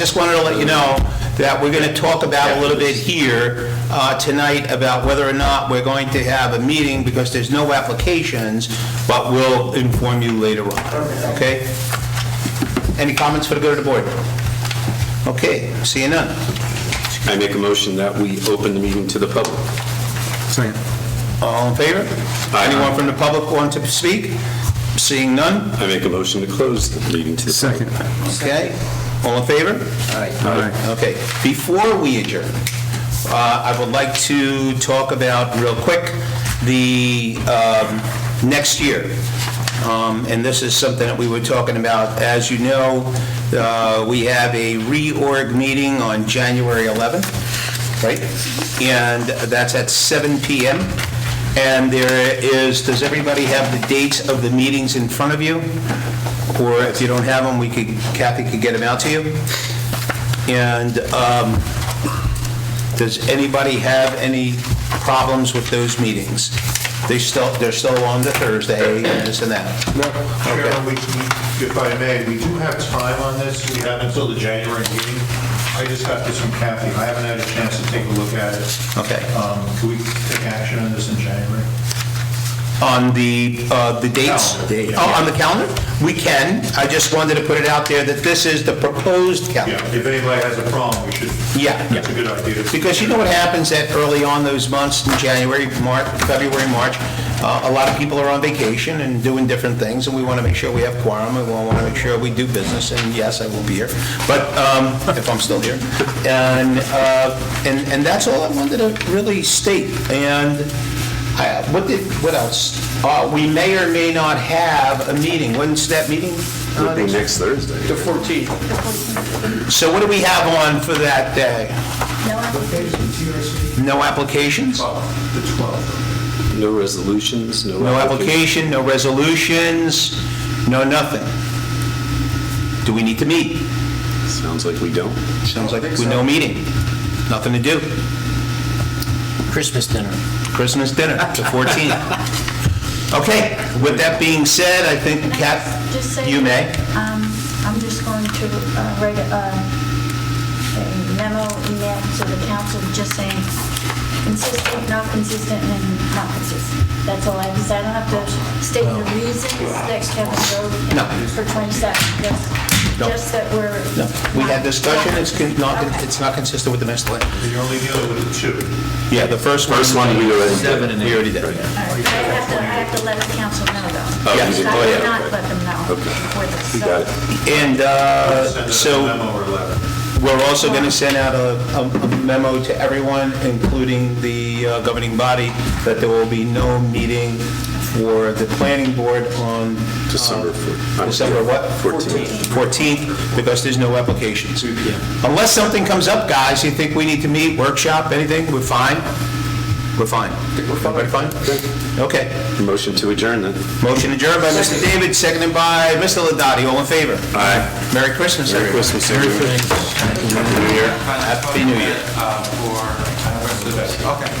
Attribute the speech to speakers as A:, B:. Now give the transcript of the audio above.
A: Just wanted to let you know that we're going to talk about a little bit here uh, tonight about whether or not we're going to have a meeting, because there's no applications, but we'll inform you later on, okay? Any comments for the good of the board? Okay, seeing none.
B: I make a motion that we open the meeting to the public.
C: Second.
A: All in favor?
B: Aye.
A: Anyone from the public want to speak? Seeing none,
B: I make a motion to close the meeting to the public.
C: Second.
A: okay? All in favor?
C: All right.
A: Okay, before we adjourn, uh, I would like to talk about, real quick, the um, next year. Um, And this is something that we were talking about. As you know, uh, we have a reorg meeting on January 11th, right? And that's at 7 PM. And there is, does everybody have the dates of the meetings in front of you? Or if you don't have them, we could, Kathy could get them out to you. And um, does anybody have any problems with those meetings? They still, they're still on the Thursday and this and that.
D: Chairman, we, we- if I may, we do have time on this, we have until the January meeting. I just got this from Kathy, I haven't had a chance to take a look at it.
A: Okay.
D: Um, Can we take action on this in January?
A: On the, uh, the dates?
D: Calendar.
A: Oh, on the calendar? We can. I just wanted to put it out there that this is the proposed
D: Yeah,
A: calendar.
D: if anybody has a problem, we should.
A: Yeah.
D: That's a good idea.
A: Because you know what happens at early on those months, in January, March, February, March, uh, a lot of people are on vacation and doing different things, and we want to make sure we have quorum, and we want to make sure we do business, and yes, I will be here, but um, if I'm still here. And, uh, and and that's all I wanted to really state. And I- what did, what else? Uh, We may or may not have a meeting. When's that meeting? uh,
B: Would be next
A: The
B: Thursday.
A: 14th. So what do we have on for that day? No applications?
D: The 12th.
B: No resolutions, no...
A: No application, no resolutions, no nothing. Do we need to meet?
B: Sounds like we don't.
A: Sounds like we no meeting. Nothing to do.
E: Christmas dinner.
A: Christmas dinner, the 14th. Okay, with that being said, I think
F: Can I
A: Kath,
F: just say-
A: you may.
F: Um, I'm just going to uh, write a uh, a memo email to the council, just saying consistent, not consistent, and not consistent. That's all I, because I don't have to state the reasons that Kevin
A: No.
F: Road for 27, just,
A: No.
F: just that we're.
A: No, We had
F: not-
A: discussion, it's con- not,
F: Okay.
A: it's not consistent with the master plan.
D: You're only dealing with the two.
A: Yeah, the first one.
B: First one, we already did. Seven
A: We already did.
F: All right, But I have to, I have to let the council know, though.
B: Oh,
A: you
F: I
A: did.
B: Oh, yeah,
F: did not
B: okay.
F: let them know.
B: Okay.
F: before this,
B: We
F: so-
B: got it.
A: And uh,
D: Send us a
A: so...
D: memo or letter.
A: We're also going to send out a a- a memo to everyone, including the uh, governing body, that there will be no meeting for the planning board on... uh,
B: December four-
A: December what?
B: 14th.
A: 14th, because there's no applications. Unless something comes up, guys, you think we need to meet, workshop, anything, we're fine? We're fine. Everybody fine? Okay.
B: Motion to adjourn then.
A: Motion adjourned by Mr. David, seconded by Mr. Ladati. All in favor?
B: Aye.
A: Merry Christmas,
B: Merry
A: everyone.
B: Christmas, everyone.
A: Happy New Year. Happy New Year.
G: Uh, for, uh, the rest of the- okay.